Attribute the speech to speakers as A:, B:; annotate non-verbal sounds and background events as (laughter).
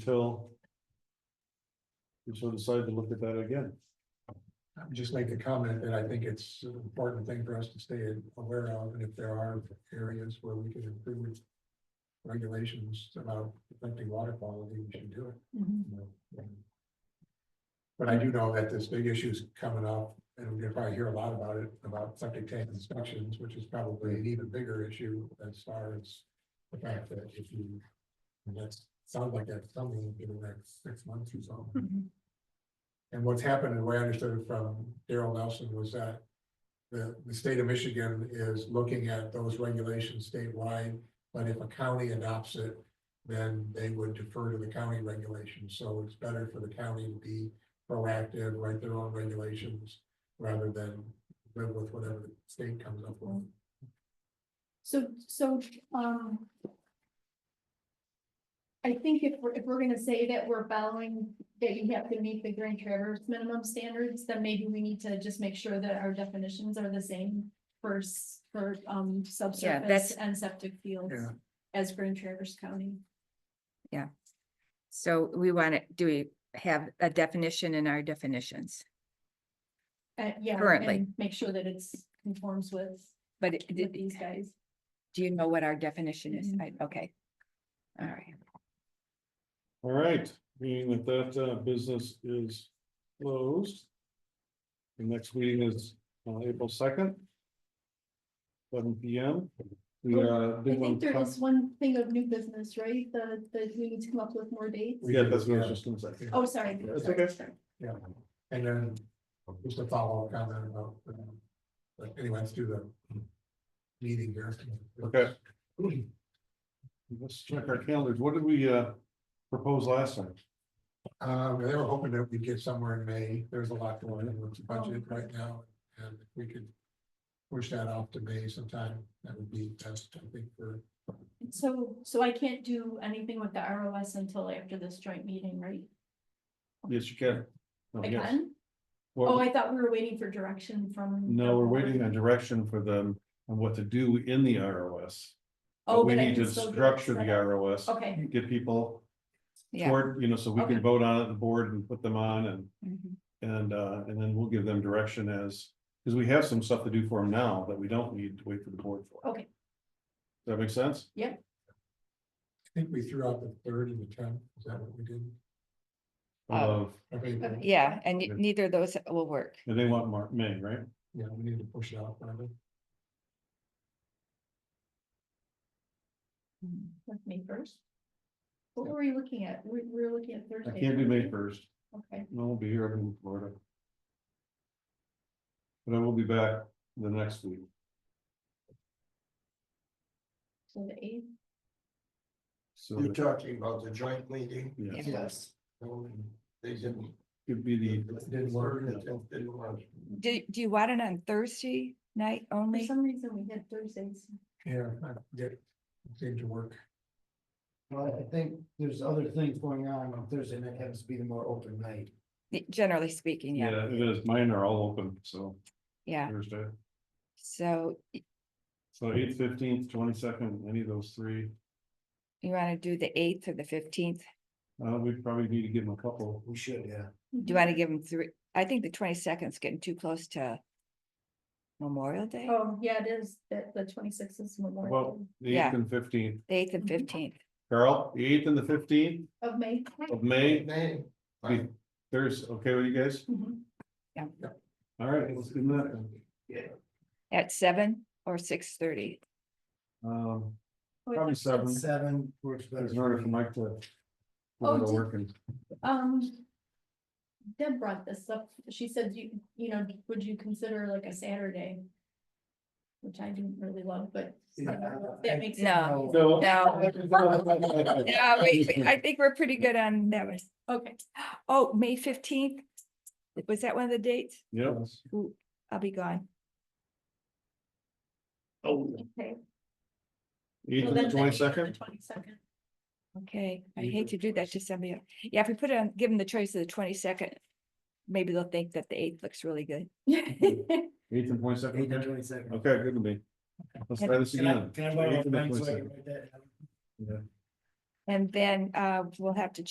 A: until. We so decide to look at that again.
B: I would Just make a comment that I think it's an important thing for us to stay aware of, and if there are areas where we can improve. Regulations about affecting water quality, we should do it. you know. But I do know that this big issue is coming up, and we're gonna probably hear a lot about it, about septic tank inspections, which is probably an even bigger issue as far as. The fact that if you, and that's, sounds like that's something in the next six months or so. And what's happened, and the way I understood it from Daryl Nelson was that. The, the state of Michigan is looking at those regulations statewide, but if a county adopts it. Then they would defer to the county regulations, so it's better for the county to be proactive, write their own regulations. Rather than live with whatever the state comes up with.
C: So, so, um. I think if we're, if we're gonna say that we're following, that you have to meet the Grand Traverse minimum standards, then maybe we need to just make sure that our definitions are the same. For, s- for, um, subsurface
D: that's-
C: and septic fields
B: Yeah.
C: as Grand Traverse County.
D: So we want to, do we have a definition in our definitions?
C: Uh, yeah.
D: Currently.
C: and Make sure that it's conforms with,
D: But it-
C: with
D: did-
C: these guys.
D: do you know what our definition is?
C: Mhm.
D: I- Okay. All right.
A: All right, meaning that that uh, business is closed. The next meeting is uh, April second. Seven P M. We uh,
C: Oh, I
A: did
C: think
A: want to
C: there
A: talk-
C: is one thing of new business, right? The, the, we need to come up with more dates.
A: Yeah, that's what I was just gonna say.
C: Oh, sorry.
A: That's
C: sorry,
A: okay.
C: sorry.
B: Yeah, and then just a follow-up comment about, um, but anyway, let's do the meeting here.
A: Okay.
B: (clears throat)
A: Let's check our calendars. What did we uh propose last time?
B: Um, they were hoping that we'd get somewhere in May. There's a lot going on with the budget
E: Oh.
B: right now, and if we could push that off to May sometime, that would be best, I think, for,
C: So, so I can't do anything with the ROS until after this joint meeting, right?
A: Yes, you can. No,
C: I
A: Oh, yes.
C: can?
A: Well,
C: Oh, I thought we were waiting for direction from.
A: No, we're waiting on direction for them on what to do in the ROS. But
C: Oh,
A: We
C: but I
A: need
C: can
A: to
C: still do it
A: structure the
C: separate.
A: ROS,
C: Okay,
A: get people
D: Yeah.
A: toward, you know, so we
C: Okay.
A: can vote on it, the board and put them on and,
C: Mm-hmm.
D: Mhm.
A: and, uh, and then we'll give them direction as. Cause we have some stuff to do for them now that we don't need to wait for the board for.
C: Okay.
A: Does that make sense?
B: I think we threw out the third and the tenth, is that what we did?
D: Um,
A: Of,
B: Of April.
D: Yeah, and
A: Yeah.
D: y- neither of those will work.
A: and they want Mark, May, right?
B: Yeah, we need to push it out further.
C: with May first. What were we looking at? We, we were looking at
A: I
C: Thursday.
A: can't do May
C: right?
A: first.
C: Okay,
A: No, we'll be here I'm in Florida. But I will be back the next week.
C: so the eighth,
A: So
E: You're
A: it
E: talking about the joint meeting?
A: Yes.
E: Yes. Um, They didn't.
A: could be the.
B: Didn't work.
E: Didn't work.
D: Do, do you want it on Thursday night
C: for
D: only?
C: some reason we had Thursdays.
B: Yeah, I did, it seemed to work.
E: Well, I think there's other things going on on Thursday night, happens to be the more open night.
D: Y- Generally speaking, yeah,
A: Yeah, it is. Mine are all open, so
D: yeah.
A: Thursday.
D: So y-
A: So eighth, fifteenth, twenty-second, any of those three.
D: you want to do the eighth or the fifteenth?
A: Uh, we probably need to give them a couple.
E: We should, yeah.
D: Do you
C: Mm-hmm.
D: want to give them three? I think the twenty second's getting too close to Memorial Day,
C: Oh, yeah, it is, that the twenty-sixth is Memorial
A: Well,
C: Day
A: the eighth
D: Yeah.
A: and fifteenth.
D: the eighth and
C: Mhm.
D: fifteenth.
A: Carl, the eighth and the fifteenth
C: of May.
A: of May,
E: May.
A: Be- Thursday, okay with you guys?
C: Mhm.
A: All right, let's do that. then.
D: At seven or six thirty?
A: Um,
C: Oh, I
A: probably
C: thought you
A: seven.
C: said-
E: Seven works better.
A: In order for Mike to.
C: Oh,
A: We're
C: did-
A: working.
C: Um. Deb brought this up, she said, you, you know, would you consider like a Saturday? Which I didn't really love, but that makes. it-
D: No.
E: Oh.
A: So.
D: No. Yeah, we, we- Uh, I think we're pretty good on that one.
C: Okay,
D: Oh, May fifteenth? Was that one of the dates?
A: Yep,
D: Ooh, I'll be gone.
A: Oh.
C: okay.
A: eighth and the twenty-second,
C: Twenty-second, (laughs)
D: Okay, I
A: Leave
D: hate
A: it
D: to do that to somebody. else. Yeah, if we put it on, give them the choice of the twenty-second, maybe they'll think that the eighth looks really good.
A: Mm-hmm. eighth and
E: Eight and
A: twenty-second.
E: twenty-second.
A: Okay, good to me. Let's try this
E: Can I,
A: again.
E: can I borrow
A: Eighth
E: a
A: and the
E: pen so I
A: 22nd.
E: can write that down?
D: And then uh, we'll have to